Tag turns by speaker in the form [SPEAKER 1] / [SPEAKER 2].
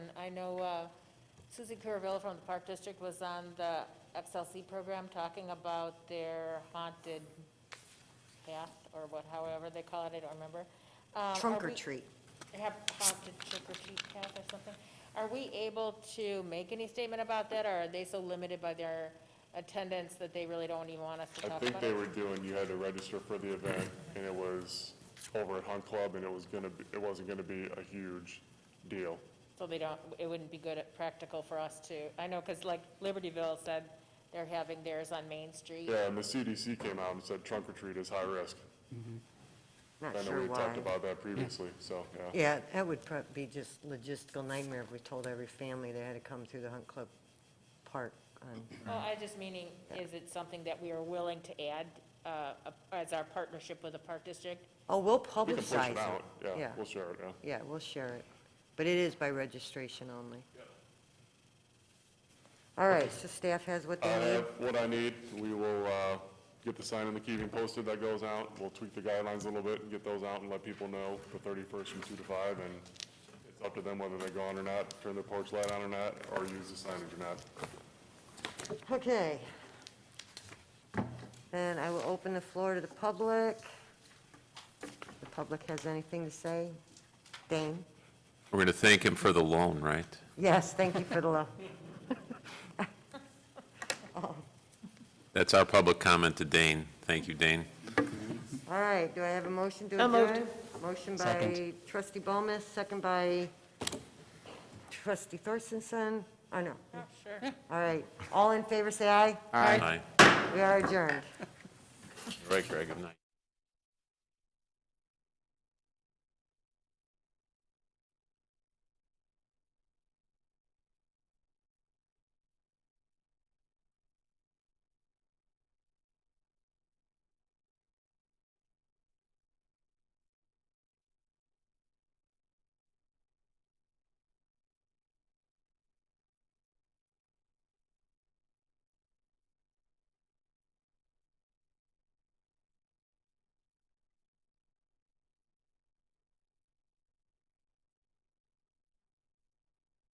[SPEAKER 1] know uh, Susie Curavilla from the Park District was on the XLC program talking about their haunted path, or what, however they call it, I don't remember. Um,
[SPEAKER 2] Trunk
[SPEAKER 1] are
[SPEAKER 2] or
[SPEAKER 1] we-
[SPEAKER 2] treat.
[SPEAKER 1] Have haunted trick or treat path or something. Are we able to make any statement about that, or are they so limited by their attendance that they really don't even want us to
[SPEAKER 3] I
[SPEAKER 1] talk
[SPEAKER 3] think
[SPEAKER 1] about
[SPEAKER 3] they
[SPEAKER 1] it?
[SPEAKER 3] were doing, you had to register for the event, and it was over at Hunt Club, and it was gonna be, it wasn't gonna be a huge deal.
[SPEAKER 1] So they don't, it wouldn't be good, at- practical for us to, I know, because like Libertyville said, they're having theirs on Main Street.
[SPEAKER 3] Yeah, and the CDC came out and said trunk or treat is high risk.
[SPEAKER 2] Not
[SPEAKER 3] I know
[SPEAKER 2] sure
[SPEAKER 3] we
[SPEAKER 2] why.
[SPEAKER 3] talked about that previously, so, yeah.
[SPEAKER 2] Yeah, that would prob- be just logistical nightmare if we told every family they had to come through the Hunt Club Park Um, on
[SPEAKER 1] Well, I just meaning, is it something that we are willing to add uh, as our partnership with the Park District?
[SPEAKER 2] Oh, we'll
[SPEAKER 3] We can push
[SPEAKER 2] publicize
[SPEAKER 3] it
[SPEAKER 2] it.
[SPEAKER 3] out, yeah, we'll share it, yeah.
[SPEAKER 2] Yeah, we'll share it, but it is by registration only. All right, so staff has what
[SPEAKER 3] I
[SPEAKER 2] they need?
[SPEAKER 3] have Uh, what I need, we will uh, get the sign in the keeping posted that goes out, we'll tweak the guidelines a little bit and get those out and let people know the thirty-first from two to five, and it's up to them whether they go on or not, turn their porch light on or not, or use the signage or not.
[SPEAKER 2] Okay. Then I will open the floor to the public. The public has anything to say? Dane?
[SPEAKER 4] We're going to thank him for the loan, right?
[SPEAKER 2] Yes, thank you for the love.
[SPEAKER 4] That's our public comment to Dane. Thank you, Dane.
[SPEAKER 2] All right, do I have a motion to
[SPEAKER 1] So moved.
[SPEAKER 2] adjourn? Motion by trustee Bomas, second by trustee Thorstensen. Oh, no.
[SPEAKER 1] Sure.
[SPEAKER 2] All right, all in favor, say aye.
[SPEAKER 4] Aye.
[SPEAKER 2] We are adjourned.
[SPEAKER 4] Right, Greg, good night.